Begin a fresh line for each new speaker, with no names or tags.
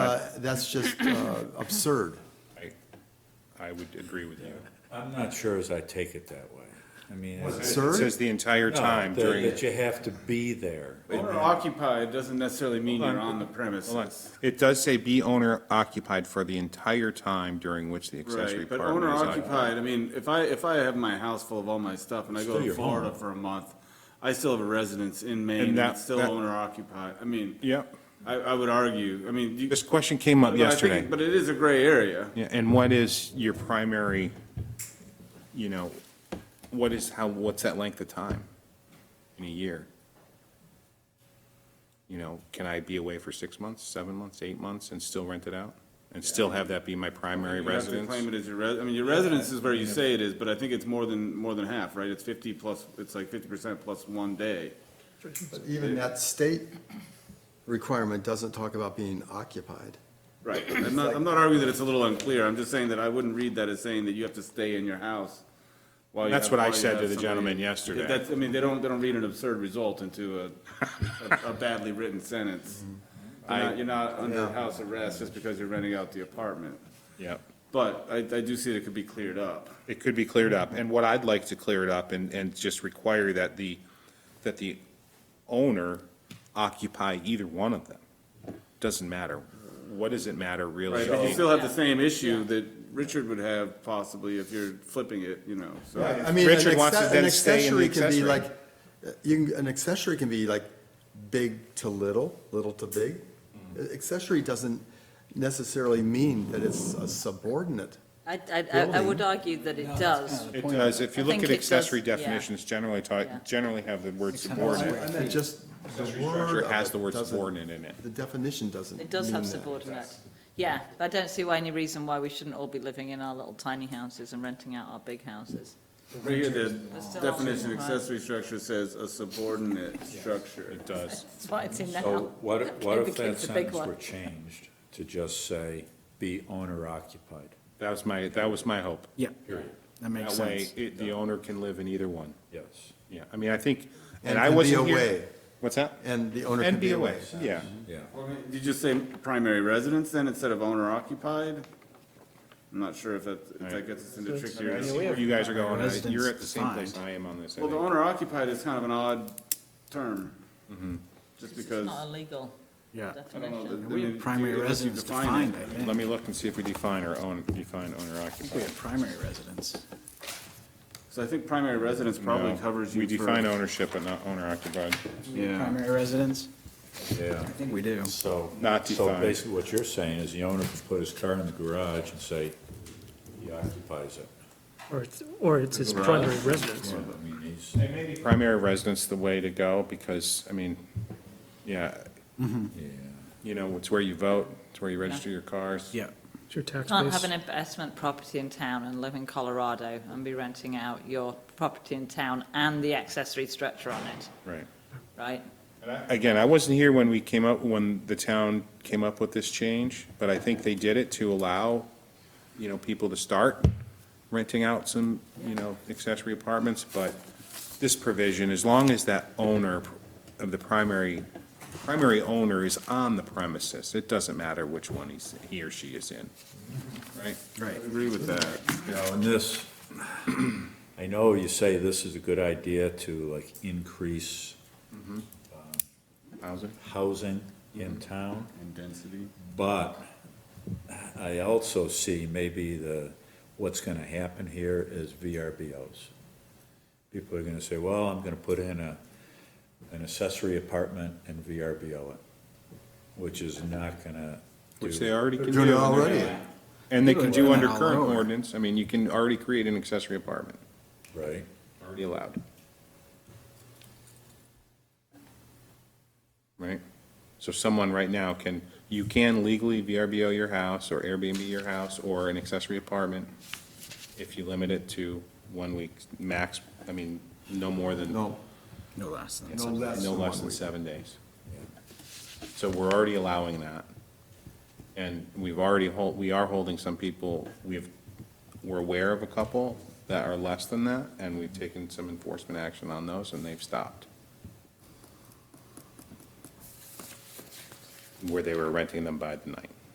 that's just uh, absurd.
I would agree with you.
I'm not sure as I take it that way. I mean.
Was it
it's-
Sir?
It says the entire
No,
time
that-
during,
That you have to be there.
Owner occupied doesn't necessarily mean
Hold
you're
on.
on the
hold on.
premises.
It does say be owner occupied for the entire time during which the accessory
Right, but
apartment
owner
is
occupied, I mean, if I, if I have my house full of all my stuff and I go
Still
to
your
Florida
home.
for a month, I still have a residence in Maine
And
and
that-
it's still
that-
owner occupied. I mean,
Yep.
I, I would argue, I mean. you-
This question came
but I
up
think-
yesterday.
But it is a gray area.
Yeah, and what is your primary, you know, what is, how, what's that length of time in a year? You know, can I be away for six months, seven months, eight months and still rent it out? And still have that be my primary
You have to
residence?
claim it as your res, I mean, your residence is where you say it is, but I think it's more than, more than half, right? It's fifty plus, it's like fifty percent plus one day.
But Even that state requirement doesn't talk about being occupied.
Right, I'm not, I'm not arguing that it's a little unclear, I'm just saying that I wouldn't read that as saying that you have to stay in your house while you
That's
have-
what I
while you
said
have
to the
somebody-
gentleman yesterday.
That's, I mean, they don't, they don't read an absurd result into a, a badly written sentence.
Mm-hmm.
You're not, you're not under house arrest just because you're renting out the apartment,
Yep.
but I, I do see that it could be cleared up.
It could be cleared up, and what I'd like to clear it up and, and just require that the, that the owner occupy either one of them. Doesn't matter. What does it matter really?
Right, but you still have the same issue that Richard would have possibly if you're flipping it, you know, so.
I mean, an
Richard wants to
acce-
then
an
stay in the
accessory can be
accessory.
like, uh, you can, an accessory can be like big to little, little to big.
Mm-hmm.
Uh, Accessory doesn't necessarily mean that it's a subordinate.
I, I- I, I would argue that it does.
It does, if you
I
look
think
at
it does,
accessory
yeah.
definitions, generally
Yeah.
taught, generally have the word subordinate.
I meant just the
Accessory
word
structure
of
has
it
the word
doesn't-
subordinate in it.
The definition doesn't.
It does have
mean that.
subordinate. Yeah, but I don't see why any reason why we shouldn't all be living in our little tiny houses and renting out our big houses.
Right here, the
still
definition of
occupied.
accessory structure says a subordinate structure.
It does.
That's why it's in
So
now.
what, what if
Became
that
the big
sentence
one.
were changed to just say, be owner occupied?
That was my, that was my hope.
Yeah, that makes
That way,
sense.
it, the owner can live in either one.
Yes,
Yeah, I mean, I think,
And
and I
can be
wasn't
away.
here. What's that?
And the owner can
And
be
be
away.
away, yeah.
yeah.
Well, I mean, Did you say primary residence then instead of owner occupied? I'm not sure if that, if that gets us into trickier.
I see where you guys are going, and I- you're at the
Residence
same place
defined.
I am on this. I
Well, the
think.
owner occupied is kind of an odd term.
Mm-hmm.
Just
It's
because,
not a legal
Yeah.
I don't know.
definition.
that- I
We
mean,
have primary
unless you
residence
define
defined,
it.
I think.
Let me look and see if we define our own, define owner
I think
occupied.
we have primary residence.
So I think primary residence probably
No,
covers you
We
for.
define ownership, but not owner occupied.
Yeah.
Primary residence?
Yeah.
I think we do.
So.
Not
So
defined.
basically what you're saying is the owner can put his car in the garage and say, he occupies it.
Or it's, or it's his primary residence.
So, I mean, he's,
Primary residence the way to go, because, I mean, yeah,
yeah.
you know, it's where you vote, it's where you register your cars.
Yeah.
It's your tax
Can't have
base.
an investment property in town and live in Colorado and be renting out your property in town and the accessory structure on it,
Right.
right?
Again, I wasn't here when we came up, when the town came up with this change, but I think they did it to allow, you know, people to start renting out some, you know, accessory apartments, but this provision, as long as that owner of the primary, primary owner is on the premises, it doesn't matter which one he's, he or she is in, right?
I agree with that.
Now, in Oh, this, I know you say this is a good idea to like increase
Mm-hmm. Housing? Mm-hmm.
housing in town.
And density.
But I also see maybe the, what's gonna happen here is VRBOs. People are gonna say, well, I'm gonna put in a, an accessory apartment and VRBO it, which is not gonna do.
Which they already can do.
Doing it already.
And they can do under
All
current
over.
ordinance, I mean, you can already create an accessory apartment,
Right?
already allowed. Right? So someone right now can, you can legally VRBO your house or Airbnb your house or an accessory apartment if you limit it to one week max, I mean, no more than, no
No,
No less than.
no less than
less
one
than
week.
seven days. So we're already allowing that. And we've already hold, we are holding some people, we've, we're aware of a couple that are less than that, and we've taken some enforcement action on those, and they've stopped. Where they were renting them by the night.